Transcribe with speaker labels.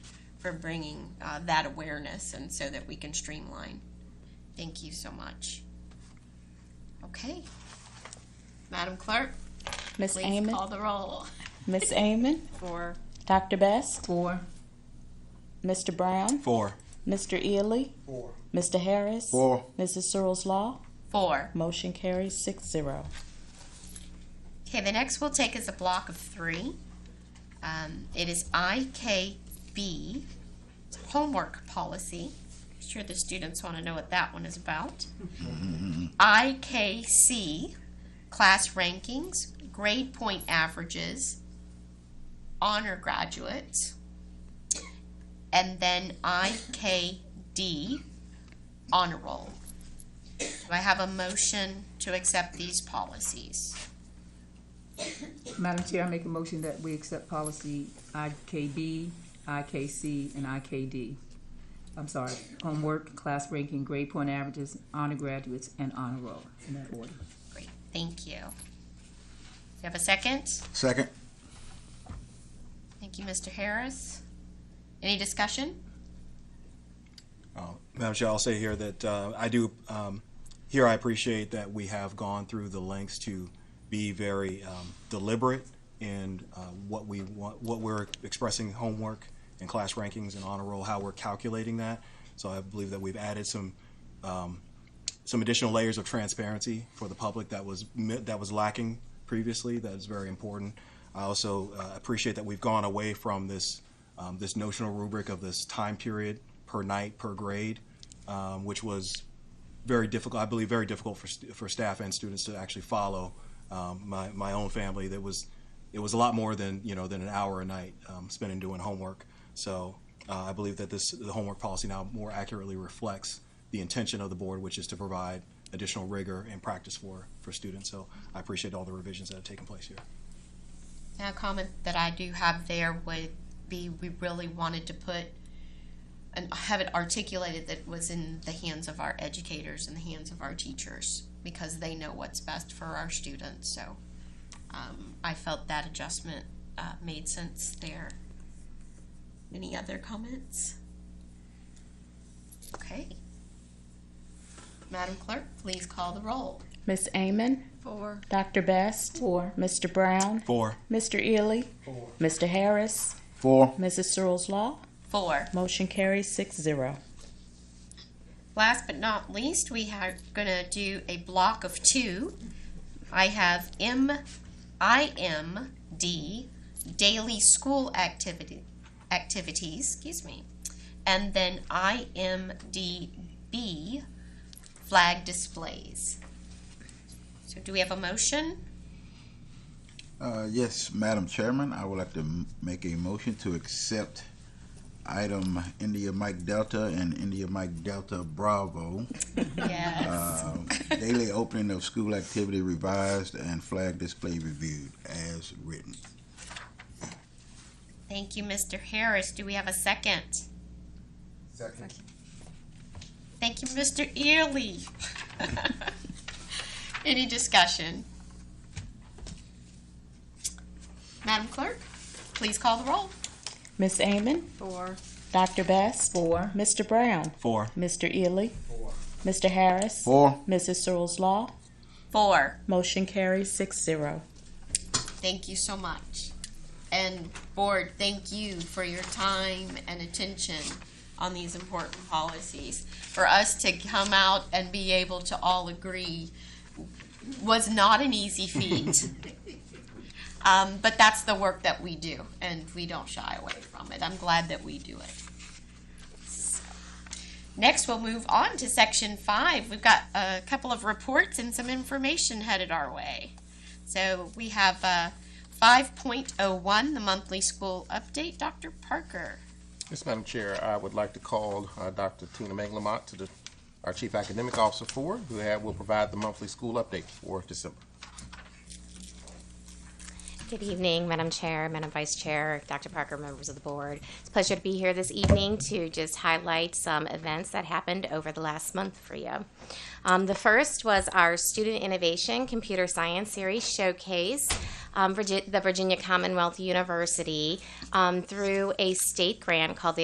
Speaker 1: for bringing uh, that awareness and so that we can streamline. Thank you so much. Okay. Madam Clerk,
Speaker 2: Miss
Speaker 1: please
Speaker 2: Amon,
Speaker 1: call the roll.
Speaker 2: Miss Amon,
Speaker 1: For.
Speaker 2: Dr. Best,
Speaker 3: Four.
Speaker 2: Mr. Brown,
Speaker 4: Four.
Speaker 2: Mr. Ely,
Speaker 4: Four.
Speaker 2: Mr. Harris,
Speaker 4: Four.
Speaker 2: Mrs. Searles Law.
Speaker 1: Four.
Speaker 2: Motion carries six zero.
Speaker 1: Okay, the next we'll take is a block of three. Um, it is IKB, it's a homework policy. I'm sure the students want to know what that one is about. IKC, class rankings, grade point averages, honor graduates, and then IKD, honor roll. Do I have a motion to accept these policies?
Speaker 3: Madam Chair, I make a motion that we accept policy IKB, IKC, and IKD. I'm sorry, homework, class ranking, grade point averages, honor graduates, and honor roll, in that order.
Speaker 1: Great, thank you. You have a second?
Speaker 4: Second.
Speaker 1: Thank you, Mr. Harris. Any discussion?
Speaker 4: Uh, Madam Chair, I'll say here that uh, I do, um, here I appreciate that we have gone through the lengths to be very um, deliberate in uh, what we want, what we're expressing homework and class rankings and honor roll, how we're calculating that. So I believe that we've added some, um, some additional layers of transparency for the public that was, mi- that was lacking previously, that is very important. I also uh, appreciate that we've gone away from this, um, this notional rubric of this time period per night, per grade, um, which was very difficult, I believe, very difficult for, st- for staff and students to actually follow. Um, my, my own family, that was, it was a lot more than, you know, than an hour a night um, spent in doing homework. So uh, I believe that this, the homework policy now more accurately reflects the intention of the board, which is to provide additional rigor and practice for, for students. So I appreciate all the revisions that have taken place here.
Speaker 1: Now, a comment that I do have there would be, we really wanted to put, and have it articulated that was in the hands of our educators and the hands of our teachers, because they know what's best for our students, so, um, I felt that adjustment, uh, made sense there. Any other comments? Okay. Madam Clerk, please call the roll.
Speaker 2: Miss Amon,
Speaker 1: Four.
Speaker 2: Dr. Best, Four. Mr. Brown,
Speaker 4: Four.
Speaker 2: Mr. Ely, Mr. Harris,
Speaker 4: Four.
Speaker 2: Mrs. Searles Law.
Speaker 1: Four.
Speaker 2: Motion carries six zero.
Speaker 1: Last but not least, we are going to do a block of two. I have M, I M D, daily school activity, activities, excuse me, and then I M D B, flag displays. So, do we have a motion?
Speaker 5: Uh, Yes, Madam Chairman, I would like to m- make a motion to accept item India Mike Delta and India Mike Delta Bravo,
Speaker 1: Yes.
Speaker 5: uh, daily opening of school activity revised and flag display reviewed as written.
Speaker 1: Thank you, Mr. Harris. Do we have a second?
Speaker 5: Second.
Speaker 1: Thank you, Mr. Early. Any discussion? Madam Clerk, please call the roll.
Speaker 2: Miss Amon,
Speaker 1: Four.
Speaker 2: Dr. Best,
Speaker 3: Four.
Speaker 2: Mr. Brown,
Speaker 4: Four.
Speaker 2: Mr. Ely, Mr. Harris,
Speaker 5: Four.
Speaker 2: Mrs. Searles Law.
Speaker 1: Four.
Speaker 2: Motion carries six zero.
Speaker 1: Thank you so much. And board, thank you for your time and attention on these important policies. For us to come out and be able to all agree was not an easy feat. Um, but that's the work that we do, and we don't shy away from it. I'm glad that we do it. Next, we'll move on to section five. We've got a couple of reports and some information headed our way. So we have uh, 5.01, the monthly school update. Dr. Parker.
Speaker 6: Yes, Madam Chair, I would like to call uh, Dr. Tina Manglamott to the, our Chief Academic Officer for, who had- will provide the monthly school update for December.
Speaker 7: Good evening, Madam Chair, Madam Vice Chair, Dr. Parker, members of the board. It's a pleasure to be here this evening to just highlight some events that happened over the last month for you. Um, the first was our Student Innovation Computer Science Series Showcase. Um, Virgi- the Virginia Commonwealth University um, through a state grant called the